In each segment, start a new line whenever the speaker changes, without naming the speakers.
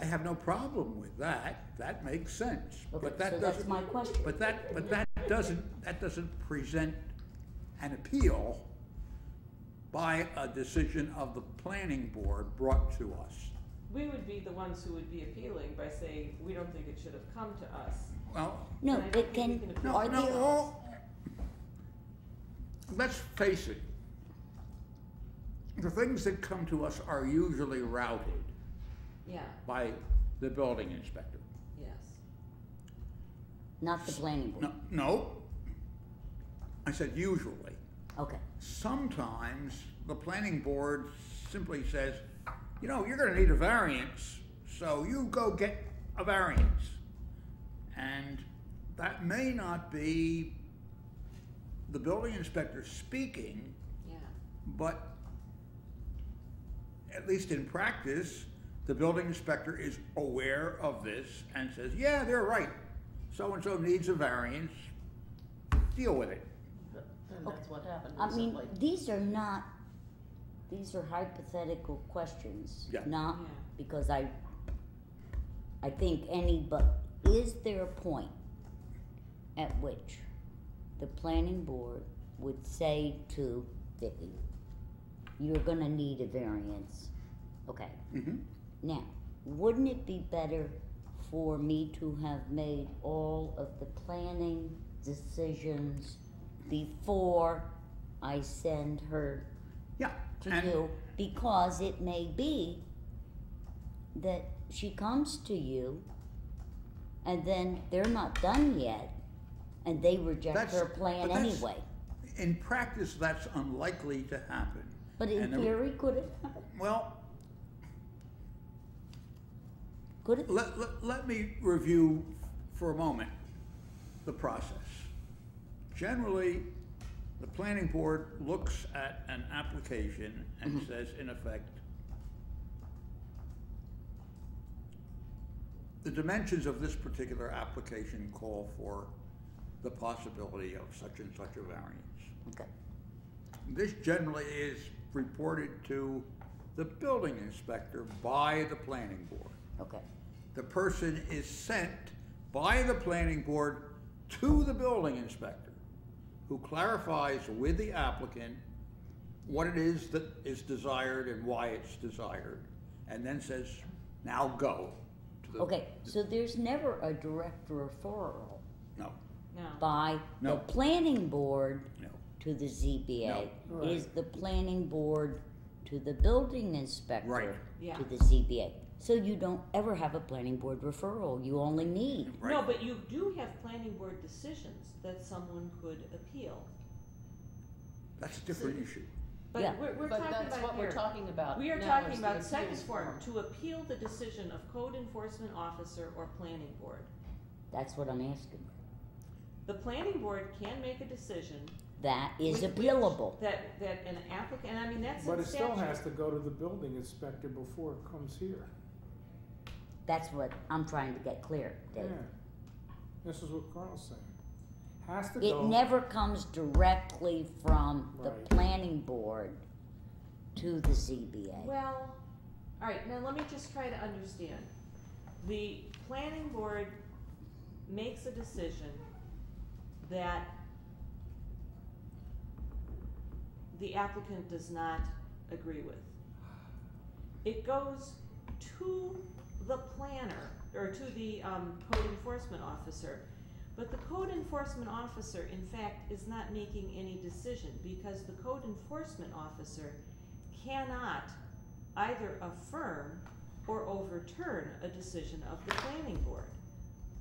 I have no problem with that, that makes sense.
Okay,
But
so
that
that's
doesn't,
my question.
but that, but that doesn't, that doesn't present an appeal by a decision of the planning board brought to us.
We would be the ones who would be appealing by saying, we don't think it should have come to us.
Well,
And
No,
I don't
but
think we
can,
can appeal
no,
are
that.
no,
there,
all, let's face it. The things that come to us are usually routed
Yeah,
by the building inspector.
yes.
not the planning board,
No, no. I said usually.
okay,
Sometimes the planning board simply says, you know, you're gonna need a variance, so you go get a variance. And that may not be the building inspector speaking,
Yeah,
but at least in practice, the building inspector is aware of this and says, yeah, they're right. So-and-so needs a variance, deal with it.
And that's what happened
I mean,
recently.
these are not, these are hypothetical questions,
Yeah.
not
Yeah.
because I, I think any, but is there a point at which the planning board would say to Vicky, you're gonna need a variance, okay?
Mhm.
Now, wouldn't it be better for me to have made all of the planning decisions before I send her
Yeah.
to
and-
you? Because it may be that she comes to you and then they're not done yet and they reject
That's-
her plan
but that's-
anyway.
In practice, that's unlikely to happen.
But in
And the-
theory, could it happen?
Well,
Could it?
let, let, let me review for a moment the process. Generally, the planning board looks at an application and
Mm-hmm.
says, in effect, the dimensions of this particular application call for the possibility of such and such a variance.
Okay,
This generally is reported to the building inspector by the planning board.
okay.
The person is sent by the planning board to the building inspector, who clarifies with the applicant what it is that is desired and why it's desired, and then says, now go. to the-"
Okay, so there's never a direct referral
No,
no,
by the
No.
planning board
no.
to the ZBA.
No.
It is the planning board to the building inspector.
Right.
Yeah.
To the ZBA. So you don't ever have a planning board referral, you only need,
Right.
no, but you do have planning board decisions that someone could appeal.
That's a different issue.
Yeah.
But we're, we're talking
But
about here.
that's what we're talking about.
We are
now
talking
is the
about second
appeals
form, to appeal the decision of code enforcement officer or planning board.
that's what I'm asking.
The planning board can make a decision.
That is
with which
appealable,
That, that an applicant, and I mean, that's
But
in
it still has
statute.
to go to the building inspector before it comes here.
that's what I'm trying to get clear,
Yeah.
Dave.
This is what Carl's saying. Has to
It
go,
never comes directly from the
Right.
planning board to the ZBA.
Well, all right, now let me just try to understand. The planning board makes a decision that the applicant does not agree with. It goes to the planner, or to the, um, code enforcement officer. But the code enforcement officer, in fact, is not making any decision, because the code enforcement officer cannot either affirm or overturn a decision of the planning board.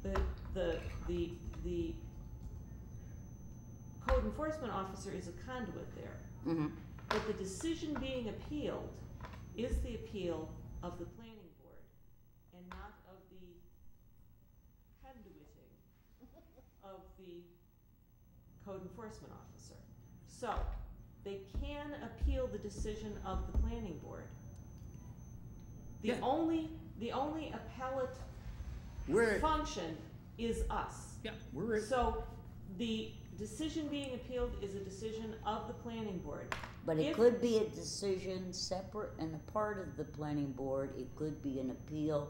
The, the, the, the code enforcement officer is a conduit there,
hmm
but the decision being appealed is the appeal of the planning board and not of the conduiting of the code enforcement officer. So, they can appeal the decision of the planning board. The
Yeah.
only, the only appellate
We're,
function is us.
yeah, we're,
So, the decision being appealed is a decision of the planning board.
But it
If-
could be a decision separate and a part of the planning board, it could be an appeal